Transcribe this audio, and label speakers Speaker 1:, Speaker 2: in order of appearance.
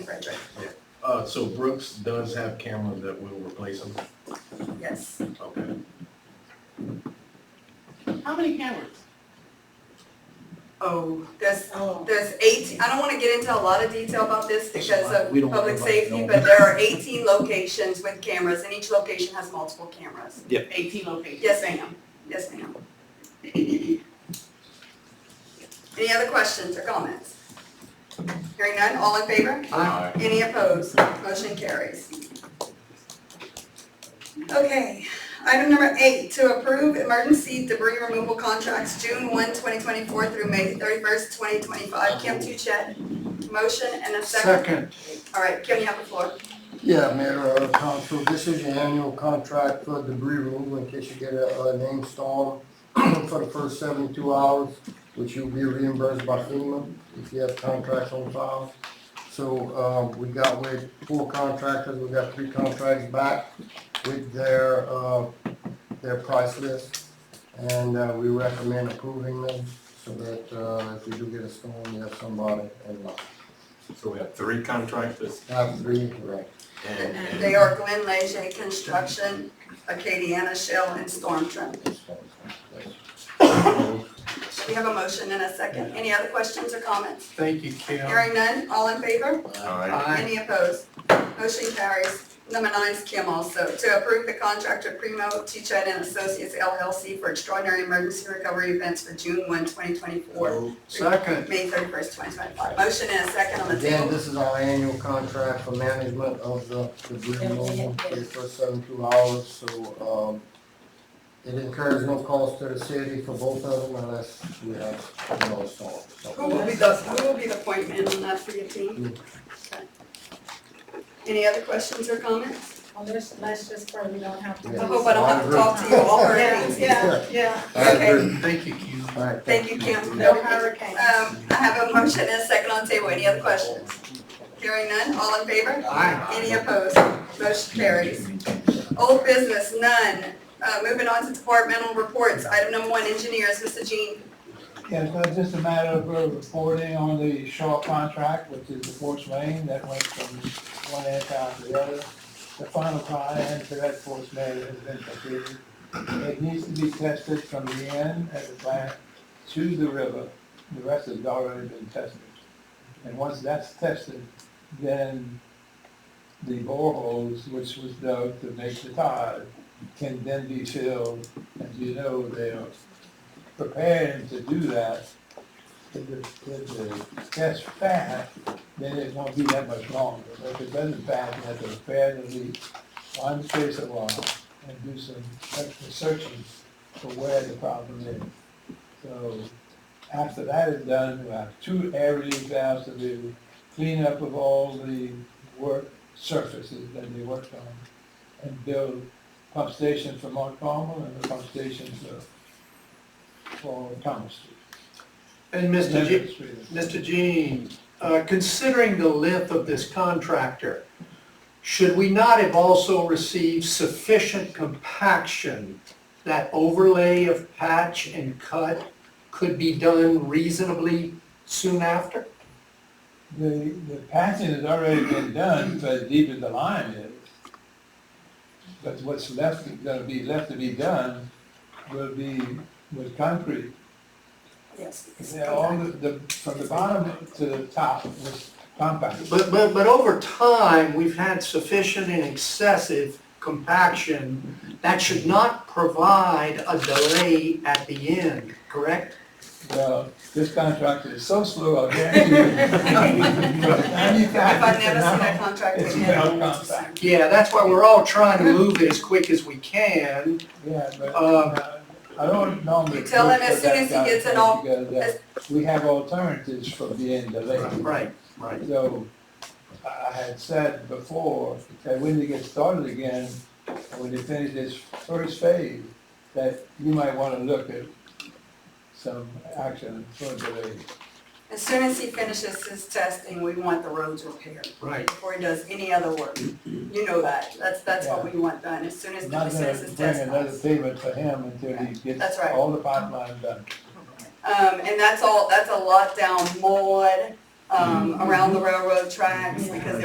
Speaker 1: right, right,
Speaker 2: Uh, so Brooks does have cameras that will replace them?
Speaker 1: yes.
Speaker 2: Okay.
Speaker 3: How many cameras?
Speaker 1: Oh, there's,
Speaker 3: Oh.
Speaker 1: there's eighteen, I don't wanna get into a lot of detail about this because of
Speaker 4: We don't
Speaker 1: public
Speaker 4: want everybody
Speaker 1: safety,
Speaker 4: knowing.
Speaker 1: but there are eighteen locations with cameras and each location has multiple cameras.
Speaker 3: Eighteen locations.
Speaker 1: Yes, ma'am, yes, ma'am. Any other questions or comments? Hearing none, all in favor?
Speaker 2: Aye.
Speaker 1: Any opposed? Motion carries. Okay, item number eight, to approve emergency debris removal contracts June 1, 2024 through May 31st, 2025. Kim Tuchet, motion and a second.
Speaker 5: Second,
Speaker 1: All right, Kim, you have the floor.
Speaker 5: yeah, Mayor, uh, Council, this is your annual contract for debris removal in case you get a, a name storm for the first seventy-two hours, which you'll be reimbursed by FEMA if you have contracts on file. So, uh, we got with four contractors, we got three contracts back with their, uh, their price list. And, uh, we recommend approving them so that, uh, if you do get a storm, you have somebody in line.
Speaker 2: So we have three contractors
Speaker 5: Have three, correct.
Speaker 2: and,
Speaker 1: They are Glenn Leger Construction, Acadiana Shell, and Storm Trim. We have a motion and a second. Any other questions or comments?
Speaker 4: Thank you, Kim.
Speaker 1: Hearing none, all in favor?
Speaker 2: all right,
Speaker 4: Aye.
Speaker 1: Any opposed? Motion carries. Number nine is Kim also, to approve the contract of Primo Teachet and Associates LLC for extraordinary emergency recovery events for June 1, 2024,
Speaker 5: Second,
Speaker 1: May 31st, 2025. Motion and a second on the
Speaker 5: again,
Speaker 1: table.
Speaker 5: this is our annual contract for management of the debris removal for the first seventy-two hours, so, um, it incurs no cost to the city for both of them unless we have no storm.
Speaker 1: Who will be the, who will be the point man on that for your
Speaker 5: Mm.
Speaker 1: team? Okay. Any other questions or comments?
Speaker 6: Well, let's, let's just pray we don't have to.
Speaker 5: Yeah.
Speaker 1: I hope I don't have to talk to you all for
Speaker 6: Yeah,
Speaker 1: anything.
Speaker 6: yeah, yeah,
Speaker 5: I agree.
Speaker 4: Thank you, Kim.
Speaker 5: All right,
Speaker 1: Thank you, Kim.
Speaker 6: no hurricane.
Speaker 1: Um, I have a motion and a second on the table. Any other questions? Hearing none, all in favor?
Speaker 4: Aye.
Speaker 1: Any opposed? Motion carries. Old business, none. Uh, moving on to departmental reports, item number one, engineers, Mr. Jean.
Speaker 7: Yes, that's just a matter of uh, reporting on the Shaw contract, which is the force main that went from one end town to the other. The final tie-in to that force main has been completed. It needs to be tested from the end at the plant to the river. The rest has already been tested. And once that's tested, then the boreholes, which was dug to make the tie, can then be filled. As you know, they are preparing to do that, if the, if the test pass, then it won't be that much longer. But if it doesn't pass, you have to repair the leak, untrace it along, and do some extra searching for where the problem is. So after that is done, we have two areas now to do, cleanup of all the work surfaces that they worked on, and build pump station for Montgomery and the pump station for for Thomas Street.
Speaker 4: And Mr. G,
Speaker 7: Lemon Street.
Speaker 4: Mr. Jean, uh, considering the length of this contractor, should we not have also received sufficient compaction that overlay of patch and cut could be done reasonably soon after?
Speaker 7: The, the patching has already been done for as deep as the line is. But what's left, gonna be left to be done will be with concrete.
Speaker 1: Yes.
Speaker 7: Yeah, all the, the, from the bottom to the top was compacted.
Speaker 4: But, but, but over time, we've had sufficient and excessive compaction that should not provide a delay at the end, correct?
Speaker 7: Well, this contractor is so slow, I guarantee you. From
Speaker 1: If I've
Speaker 7: 95
Speaker 1: never
Speaker 7: to
Speaker 1: seen that
Speaker 7: now,
Speaker 1: contract
Speaker 7: It's
Speaker 1: again.
Speaker 7: now compact.
Speaker 4: Yeah, that's why we're all trying to move it as quick as we can.
Speaker 7: Yeah, but
Speaker 4: Um,
Speaker 7: uh, I don't normally.
Speaker 1: You tell him
Speaker 7: push
Speaker 1: as
Speaker 7: for
Speaker 1: soon
Speaker 7: that
Speaker 1: as he
Speaker 7: kind of
Speaker 1: gets it
Speaker 7: thing
Speaker 1: all-
Speaker 7: because, uh,
Speaker 1: as-
Speaker 7: We have alternatives for being delayed.
Speaker 4: Right, right.
Speaker 7: So I I had said before that when they get started again, when they finish this first phase, that you might want to look at some action for delay.
Speaker 1: As soon as he finishes his testing, we want the roads repaired
Speaker 4: Right.
Speaker 1: before he does any other work. You know that. That's, that's what we want done, as soon as
Speaker 7: I'm
Speaker 1: he
Speaker 7: Not going
Speaker 1: finishes
Speaker 7: to
Speaker 1: his
Speaker 7: bring
Speaker 1: test.
Speaker 7: another payment for him until he
Speaker 1: That's
Speaker 7: gets
Speaker 1: right.
Speaker 7: all the pipeline done.
Speaker 1: Um, and that's all, that's a lot down Maud, um, around the railroad tracks, because